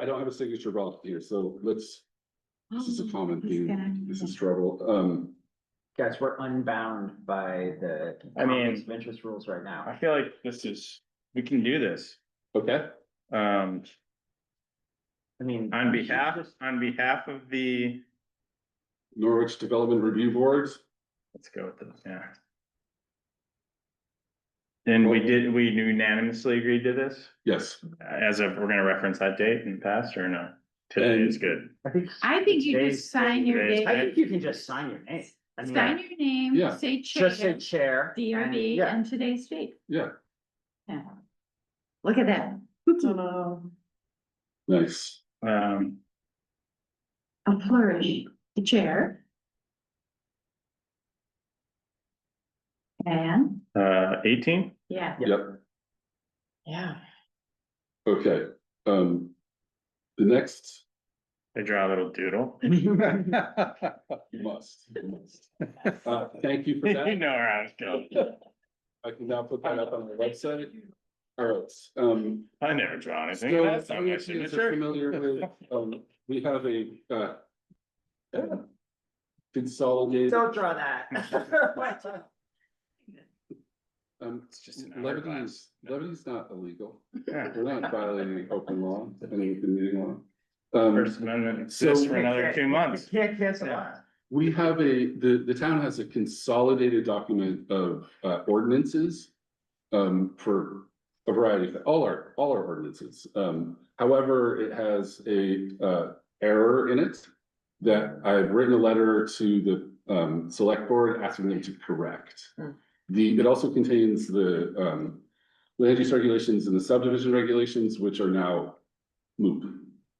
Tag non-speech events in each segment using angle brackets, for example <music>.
I don't have a signature ballot here, so let's, this Um, is Oh, a common theme, this is struggle, um. Guys, we're unbound by the. I mean- conflicts of Interest rules right I now. feel like this is, we can do this. Okay, Um, I mean. on behalf, on behalf of the, Norwich Development Review Board, let's go with this, yeah. And we did, we unanimously agreed to this yes, as if we're gonna reference that date in the past or no? Today is good. I think. I think you Today's- just sign your today's- I name, think you can just sign your name. I mean, sign your Yeah. name, say Just say chair, chair. and- DRB Yeah. and today's date. Yeah. Yeah. Look at that. nice. Um, A flourish, the chair. And, uh, eighteen? yeah. Yep. Yeah. Okay, um, the next. I draw a little doodle. You Must, you must. Uh, thank you for <laughs> You that. know where I was going. I can now put that up on the website. All right, um. I never draw so anything. That's not my you guys are signature. Familiar with, <laughs> um, we have a, uh. Consolidated, <laughs> Don't draw that. <laughs> um, It's just an hourglass. levity's, levity's not illegal. Yeah. We're not violating open law, any open meeting law. Um, First Amendment exists <laughs> for another two months. You Can't cancel Yeah. that. we have a, the, the town has a consolidated document of, uh, ordinances. Um, for a variety of, all our, all our ordinances. Um, however, it has a, uh, error in it. That I've written a letter to the, um, select board asking them to correct. Hmm. The, it also contains the, um, land use regulations and the subdivision regulations, which are now moot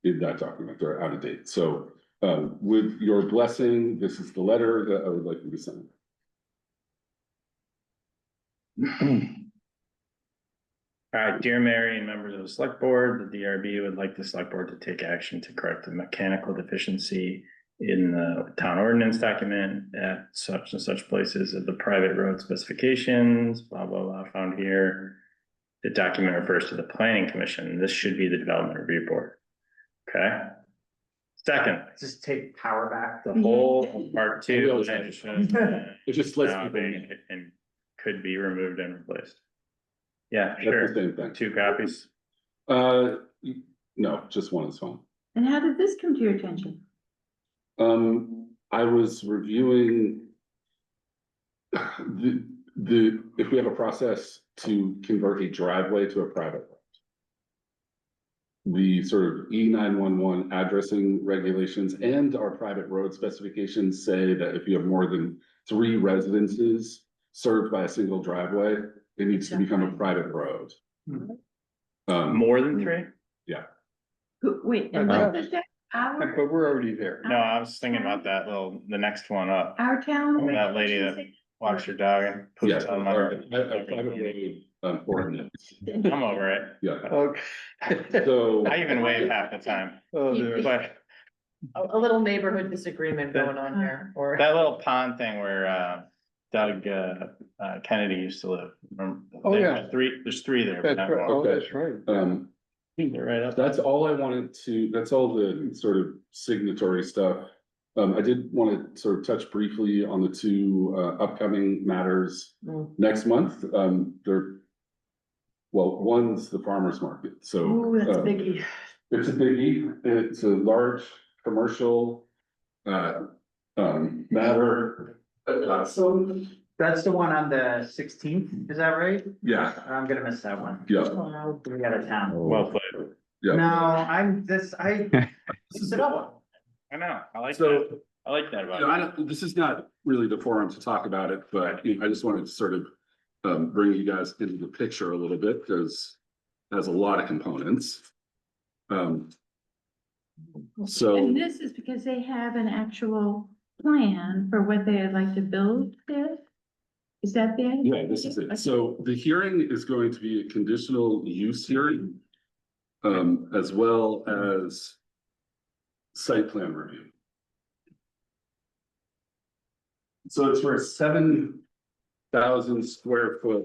in that document, they're out of date. So, um, with your blessing, this is the letter that I would like you to sign. Uh, dear Mary and members of the select board, the DRB would like the select board to take action to correct the mechanical deficiency in the town ordinance document at such and such places of the private road specifications, blah, blah, blah, found here. The document refers to the planning commission. This should be the development review board. Okay? Second, Just take power back. the <laughs> whole part two. legislation, It just lets uh, people know. And could be removed and replaced. Yeah, sure. That's the same thing. Two copies. Uh, y- no, just one is fine. And how did this come to your attention? Um, I was reviewing the, the, if we have a process to convert a driveway to a private road. The sort of E nine one one addressing regulations and our private road specifications say that if you have more than three residences served by a single driveway, it needs to become a private road. Mhm. Um, More than three? Who, wait, and Uh, what was that? Our, we're already there. No, I was thinking about that little, the next one up. our town. That lady that walks your dog and yeah, puts on my. or a- a private road, um, ordinance, I'm over it. yeah, Okay. <laughs> so. I even wave half the time, Oh, dear. but A, a little neighborhood disagreement going on here, or. <laughs> that little pond thing where, uh, Doug, uh, uh, Kennedy used to live. remember? Oh, There yeah. were Three, there's three there. but That's not right, one. oh, that's right. Um, They're right up. that's all I wanted to, that's all the sort of signatory stuff. Um, I did want to sort of touch briefly on the two uh upcoming matters Mm. next month. Um, they're. Well, one's the farmer's market, so. Ooh, that's Uh, um, biggie. It's a biggie, it's a large commercial uh um matter. Uh, so, That's the one on the sixteenth, is that right? yeah, I'm gonna miss that one. yeah, Wow. We out of town. Well played. Yeah. No, I'm this, I. <laughs> This is another I know. I like so. that. I like that about You know, I it. don't, this is not really the forum to talk about it, but you know, I just wanted to sort of um, bring you guys into the picture a little bit because it has a lot of components. Um. So, And this is because they have an actual plan for what they'd like to build there? Is that the? idea? yeah, this is it. So the hearing is going to be a conditional use hearing. Um, as well as site plan review. So it's for a seven thousand square foot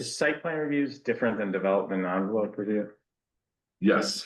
Is Site plan review is different than development envelope review. Yes,